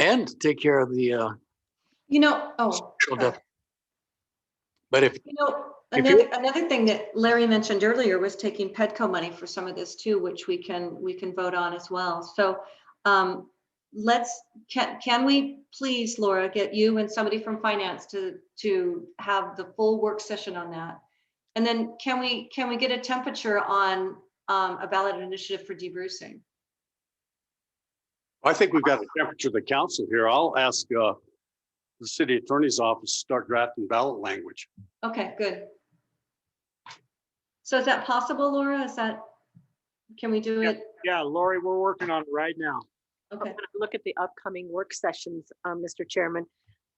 and take care of the uh, You know, oh, structural sorry. deficit. But if, you know, If you- another, another thing that Larry mentioned earlier was taking Pedco money for some of this too, which we can, we can vote on as well. So um, let's, can, can we please, Laura, get you and somebody from finance to, to have the full work session on that? And then can we, can we get a temperature on um, a ballot initiative for debrucing? I think we've got a temperature of the council here. I'll ask uh, the city attorney's office to start drafting ballot language. Okay, good. So is that possible, Laura? Is that, can we do Yeah. it? Yeah, Lori, we're working on it right now. Okay. When I Look at the upcoming work sessions, um, Mr. Chairman.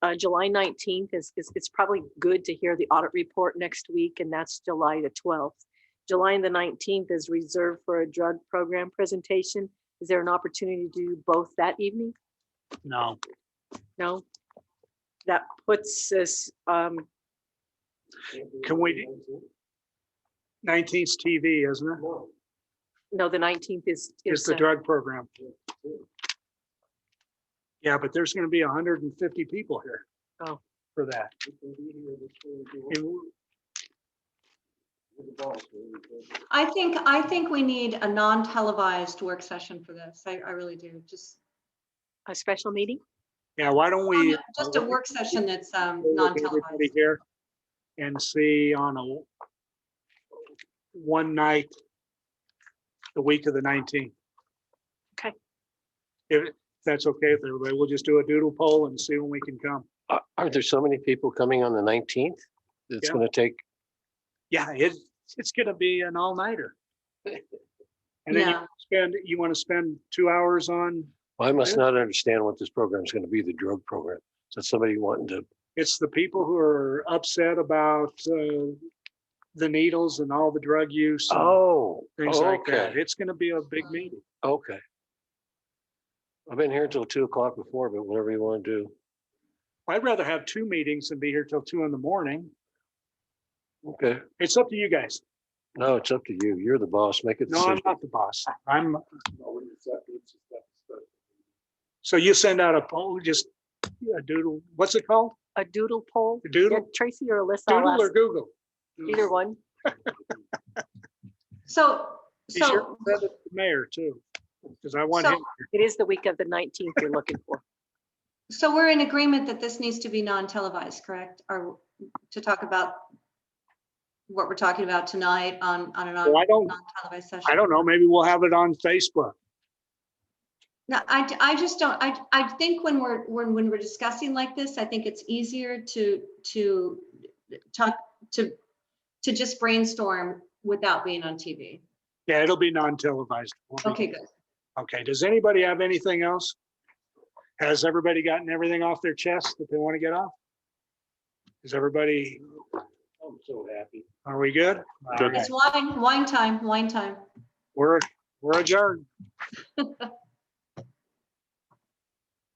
Uh, July nineteenth is, is, it's probably good to hear the audit report next week, and that's July the twelfth. July the nineteenth is reserved for a drug program presentation. Is there an opportunity to do both that evening? No, No? That puts us, um, can we? Nineteenth's TV, isn't it? no, the nineteenth is. It's the uh, drug program. Yeah, but there's gonna be hundred and fifty people here. Oh. For that. And I think, I think we need a non-televised work session for this. I, I really do. Just, um, A special meeting? Yeah, why don't we? uh, just a work session that's um, look at non-televised. everybody Here and see on a one night, the week of the nineteenth. Okay. If that's okay with everybody, we'll just do a doodle poll and see when we can come. Are, are there so many people coming on the nineteenth? It's Yeah. gonna take, Yeah, it, it's gonna be an all-nighter. And then you Yeah. spend, you want to spend two hours on, I must Yeah. not understand what this program is gonna be, the drug program. So somebody wanting to, it's the people who are upset about uh, the needles and all the drug use. and oh, Things like that. okay, It's gonna be a big meeting. okay. I've been here until two o'clock before, but whatever you wanna do. I'd rather have two meetings than be here till two in the morning. Okay, It's up to you guys. no, it's up to you. You're the boss. Make a No, I'm decision. not the boss. I'm. So you send out a poll, just a doodle, what's it called? A doodle poll? A Yeah, Doodle, Tracy or Alyssa? I'll doodle or ask Google? Either one. So, Be sure so, to send it to the Mayor too, because I want So- him. It is the week of the nineteenth you're looking for. so we're in agreement that this needs to be non-televised, correct? Or to talk about what we're talking about tonight on, on an Well, I don't, non-televised session? I don't know, maybe we'll have it on Facebook. No, I, d- I just don't, I, I think when we're, when, when we're discussing like this, I think it's easier to, to talk, to, to just brainstorm without being on TV. Yeah, it'll be non-televised. We'll be- Okay, good. Okay, does anybody have anything else? Has everybody gotten everything off their chest that they want to get off? Is everybody? I'm so happy. Are we good? All right, It's wine, wine time, wine time. We're, we're adjourned.